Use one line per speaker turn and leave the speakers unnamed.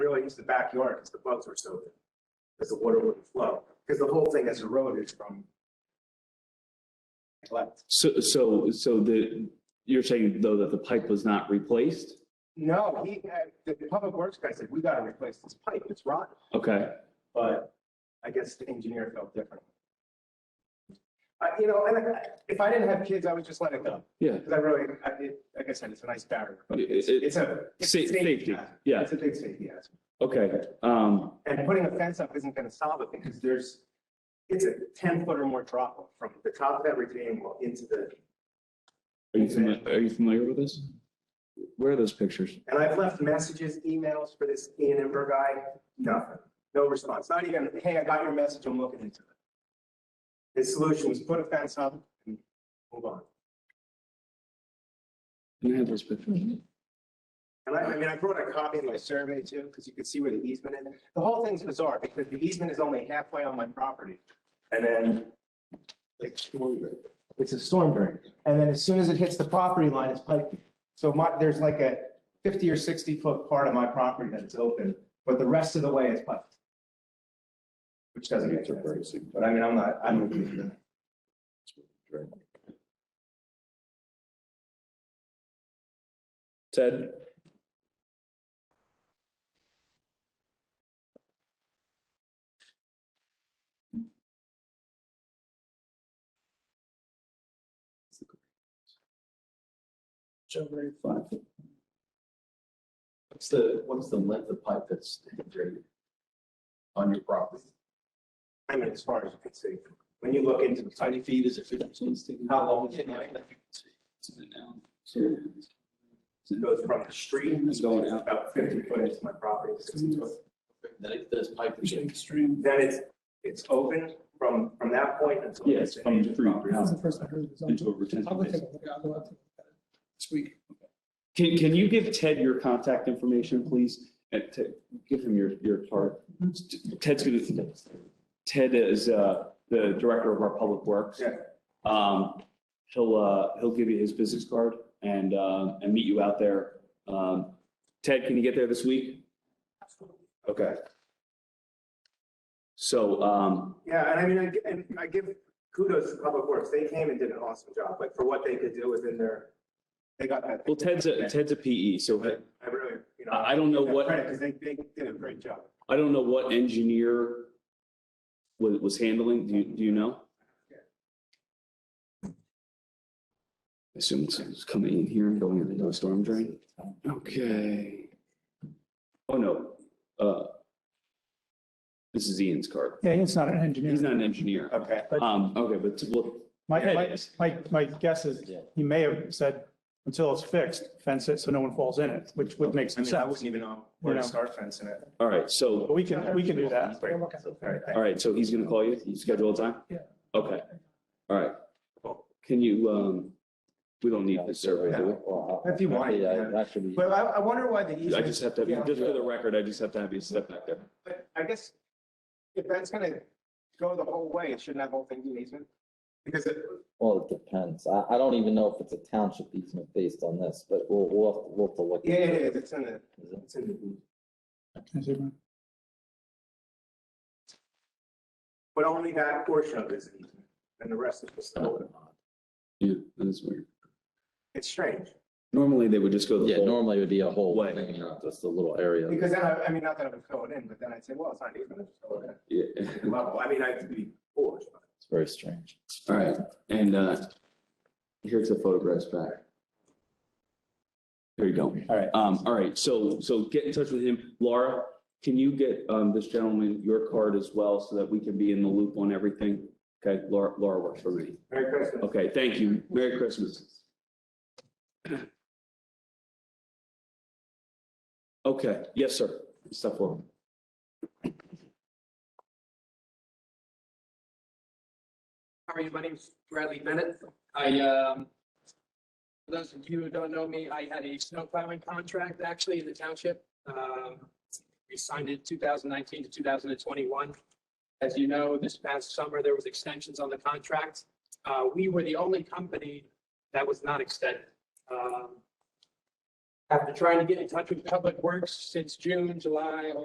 into the backyard because the bugs were so big. Because the water wouldn't flow, because the whole thing as a road is from neglect.
So, so, so the, you're saying though that the pipe was not replaced?
No, he, had- the public works guy said, we gotta replace this pipe, it's rotten,
Okay,
but I guess the engineer felt different. I you know, and I- if I didn't have kids, I would just let it go,
yeah.
because I really, I, it- like I said, it's a nice barrier, but
It-
it's,
it-
it's a. it's a
Sa- safety,
hazard.
yeah,
It's a big safety hazard.
okay, um,
And putting a fence up isn't gonna solve it because there's, it's a ten foot or more drop off from the top of that retaining wall into the,
are you familiar, are you familiar with this? Where are those pictures?
and I've left messages, emails for this E Ian Ember guy, nothing, no response, not even, hey, I got your message, I'm looking into it. His solution was put a fence up and move on.
Can I have those pictures?
And I, I mean, I brought a copy of my survey too, because you could see where the easement is. The whole thing's bizarre because the easement is only halfway on my property. And then like, it's a storm drain. And then as soon as it hits the property line, it's piped. So my, there's like a fifty or sixty foot part of my property that's open, but the rest of the way is piped. Which doesn't make sense. But I mean, I'm not, I'm.
Ted?
What's the, what's the length of pipe that's integrated on your property?
I mean, as far as you can see, when you look into the site,
Twenty feet, is it fifteen?
how long it goes from the street
It's going out.
about fifty foot into my property, sixty foot.
That it, this pipe is
Then it's, it's open from, from that point until.
Yes, from the street.
That's the first I heard of this.
Into a retention
I'll go
basin.
take a look. I'll go out to- this week.
Can, can you give Ted your contact information, please? And Ted, give him your, your card. Ted's gonna, Ted is, uh, the director of our public works.
Yeah.
Um, he'll, uh, he'll give you his business card and, uh, and meet you out there. Um, Ted, can you get there this week? Okay. So, um,
Yeah, and I mean, I, gi- and I give kudos to Public Works. They came and did an awesome job, like for what they could do within their, they got that.
well, Ted's a, Ted's a PE, so
I really, you know.
I I don't know what.
Because they, they did a great job.
I don't know what engineer was, was handling, do you, do you know?
Yeah.
I Assume it's- it's coming in here and going into the storm drain? Okay. Oh, no, uh, this is Ian's card.
Yeah, he's not an engineer.
He's not an engineer.
Okay.
Um, okay, but, well,
My,
Yeah, it
my,
is.
my, my guess is he may have said, until it's fixed, fence it so no one falls in it, which would make
I
some
mean, I
sense.
wouldn't even know where to
You know.
start fencing it.
all right,
But
so,
we can, we can do that.
Great. All
Look at it.
right, thank
all right, so he's gonna call you, you schedule a time?
Yeah.
Okay, all right. Can you, um, we don't need this survey, do we?
If you want, yeah. you. But I, I wonder why the
I
easement.
just have to,
Yeah.
just for the record, I just have to have you step back there.
But I guess if that's gonna go the whole way, it shouldn't that whole thing be an easement? Because it,
Well, it depends. I, I don't even know if it's a township easement based on this, but we'll, we'll, have- we'll have to look.
yeah, yeah,
into
yeah,
it.
it's in the, it's in the. But only that portion of it is an easement, and the rest is just open.
Yeah, that is weird.
It's strange,
Normally, they would just go the
Yeah,
whole.
normally it would be a whole
Way.
thing, not just a little area.
because then I, I mean, not that I would fill it in, but then I'd say, well, it's not even, it's fill it
Yeah.
in. Level, I mean, I'd be foolish. but-
It's very strange.
All right, and uh, here's the photographs back. There you go.
All right.
Um, all right, so, so get in touch with him. Laura, can you get um, this gentleman your card as well so that we can be in the loop on everything? Okay, Laura, Laura works for me.
Merry Christmas.
Okay, thank you. Merry Christmas. Okay, yes, sir. Step forward.
How are you? My name's Bradley Bennett. I, um, for those of you who don't know me, I had a snow plowing contract actually in the township. Um, we signed it two thousand nineteen to two thousand and twenty-one. As you know, this past summer, there was extensions on the contract. Uh, we were the only company that was not extended. Um, After trying to get in touch with Public Works since June, July,